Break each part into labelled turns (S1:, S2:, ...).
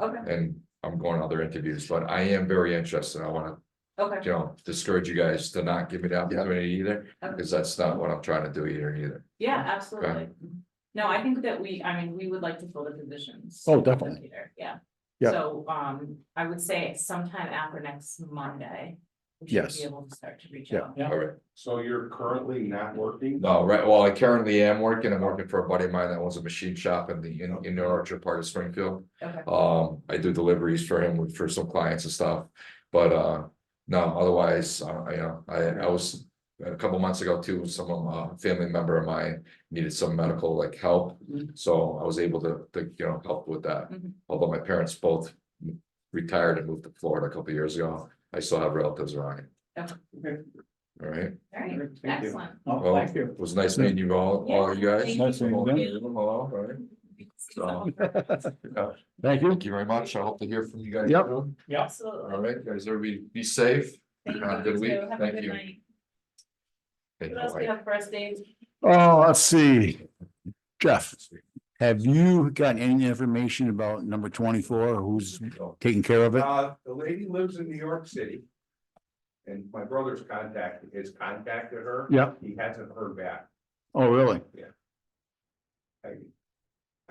S1: Okay,
S2: and I'm going to other interviews, but I am very interested. I wanna,
S1: okay,
S2: you know, discourage you guys to not give me the opportunity either.
S1: Okay.
S2: Cause that's not what I'm trying to do either, either.
S1: yeah, absolutely. No, I think that we, I mean, we would like to fill the positions.
S3: Oh, definitely.
S1: Peter, Yeah.
S3: Yeah.
S1: So, um, I would say sometime after next Monday. we should
S3: Yes.
S1: Be able to start to reach
S3: Yeah.
S1: out.
S4: Yeah.
S2: All right.
S4: So you're currently not working?
S2: No, right, well, I currently am working, I'm working for a buddy of mine that owns a machine shop in the, in, in the orchard part of Springfield.
S1: Okay,
S2: Um, I do deliveries for him with, for some clients and stuff, but, uh, no, otherwise, uh, you know, I, I was. A couple months ago too, some of my family member of mine needed some medical like help,
S1: Mhm.
S2: so I was able to, to, you know, help with that.
S1: Mhm.
S2: Although my parents both retired and moved to Florida a couple years ago, I still have relatives around
S1: Okay.
S2: here. All right,
S1: all right,
S4: Thank you.
S1: excellent.
S2: well,
S4: thank
S2: it was nice meeting you all, all you guys.
S1: Yeah,
S3: thank you.
S2: All three of them, hello, all right. So, yeah,
S3: Thank you.
S2: Thank you very much. I hope to hear from you guys.
S3: Yep.
S2: soon.
S1: Absolutely.
S2: All right, guys, everybody be safe.
S1: Thank you.
S2: Have a good
S1: You
S2: week.
S1: too. Have a
S2: Thank
S1: good
S2: you.
S1: night.
S2: Thank
S1: What
S2: you.
S1: else we
S2: Bye.
S1: have for us, Dave?
S3: Oh, let's see. Jeff, have you gotten any information about number twenty-four, who's taking care of it?
S4: Uh, the lady lives in New York City. And my brother's contact, has contacted her.
S3: Yeah.
S4: He hasn't heard back.
S3: Oh, really?
S4: I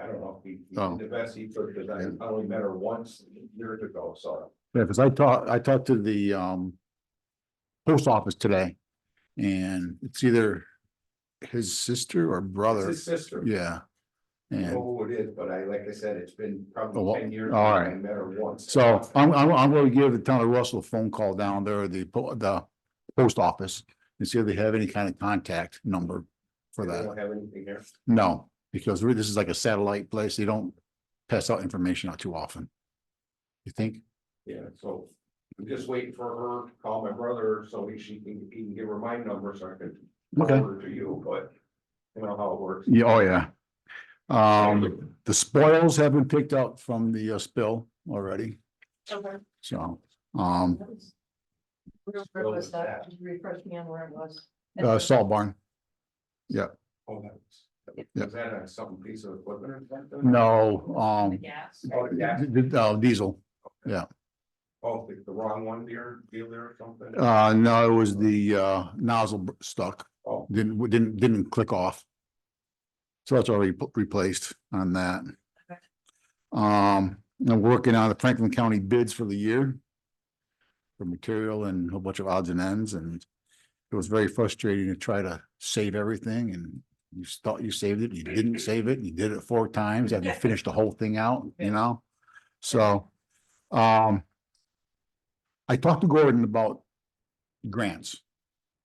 S4: I don't know if he, he
S3: Oh.
S4: did the best he could, because I only met her once years ago, so.
S3: Yeah, because I talked, I talked to the um. Post office today. And it's either his sister Oh. or
S4: It's
S3: brother,
S4: his sister.
S3: yeah.
S4: I don't
S3: And
S4: know who it is, but I, like I said, it's been
S3: Oh, well,
S4: probably ten years.
S3: all
S4: since I
S3: right.
S4: met her once.
S3: so I'm I'm I'm gonna give the town of Russell a phone call down there, the po- the post office. And see if they have any kind of contact number for
S4: They
S3: that.
S4: don't have anything here.
S3: No, because we're- this is like a satellite place. They don't pass out information out too often. You think?
S4: Yeah, so I'm just waiting for her to call my brother so he, she can, he can give her my number so I can.
S3: Okay.
S4: forward her To you, but you know how it works.
S3: Yeah, oh, yeah. Um, the spoils have been picked up from the uh, spill already,
S5: Okay.
S3: so, um,
S5: Where was that? uh, Just refresh me on where it was.
S3: uh, salt barn.
S4: Oh, that's-
S3: Yeah.
S4: Is that a something piece of equipment or something?
S3: No, um,
S1: Yes.
S4: Oh, yeah,
S3: d- d- uh, diesel.
S4: oh, the, the wrong one there, dealer or something?
S3: Uh, no, it was the, uh, nozzle b- stuck.
S4: Oh.
S3: Didn't, w- didn't, didn't click off. So that's already pl- replaced on that. Um, I'm working on the Franklin County bids for the year. For material and a whole bunch of odds and ends and it was very frustrating to try to save everything and you s- thought you saved it, you didn't save it, and you did it four times, and you finished the whole thing out, you know? So, um, I talked to Gordon about grants.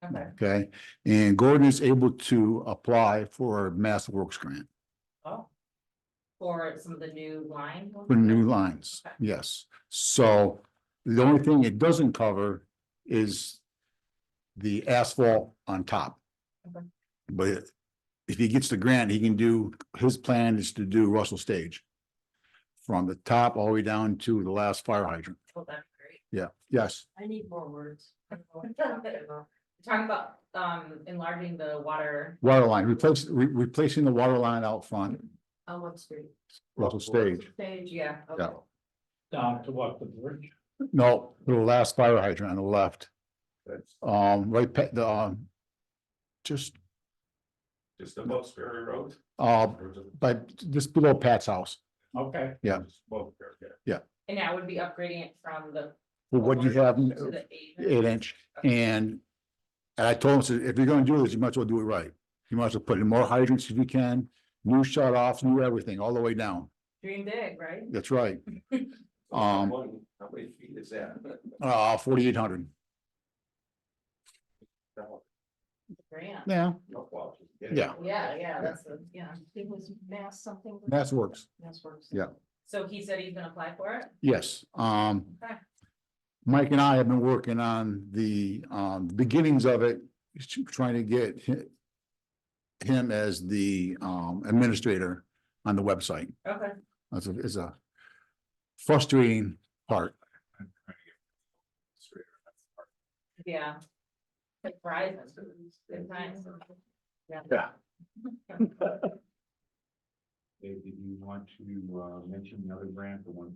S1: Okay,
S3: Okay, and Gordon is able to apply for a Mass Works grant
S1: oh. For some of the new line. ones?
S3: for new lines,
S1: Okay.
S3: yes. So the only thing it doesn't cover is the asphalt on top.
S1: Okay.
S3: But if he gets the grant, he can do, his plan is to do Russell Stage from the top all the way down to the last fire hydrant.
S1: Oh, that's great.
S3: Yeah, yes,
S5: I need more words. I don't know what you're talking about.
S1: Talking about, um, enlarging the water,
S3: water line, replace, re- replacing the water line out front,
S5: On what street?
S3: Russell Stage.
S5: Stage, yeah.
S1: yeah, okay.
S3: Yeah.
S6: down to what the bridge.
S3: No, the last fire hydrant on the left.
S4: That's
S3: Um, right, pa- the, um. Just,
S4: just above Sperry Road.
S3: uh,
S4: Or just
S3: but just below Pat's house,
S6: Okay,
S3: Yeah.
S4: just above there, yeah.
S1: And I would be upgrading it from the.
S3: Well, what you have,
S1: To the eight.
S3: eight inch, and. And I told him, I said, if you're gonna do this, you might as well do it right, you might as well put in more hydrants if you can, new shut offs, new everything, all the way down,
S1: Dream big, right?
S3: that's right,
S4: How
S3: Um,
S4: many- how many feet is that?
S3: uh, forty-eight hundred.
S4: No,
S1: Grant.
S3: Yeah,
S4: no, well, just get it.
S3: yeah,
S1: Yeah, yeah, that's, a- yeah.
S5: It was Mass something.
S3: Mass Works,
S5: Mass Works.
S3: Yeah.
S1: So he said he's gonna apply for it?
S3: yes, um.
S1: Okay.
S3: Mike and I have been working on the um beginnings of it, trying to get hi- him as the um administrator on the website.
S1: Okay,
S3: That's a, is a frustrating part.
S1: yeah. Like Verizon, good times.
S3: Yeah.
S6: Dave, did you want to uh mention the other grant, the one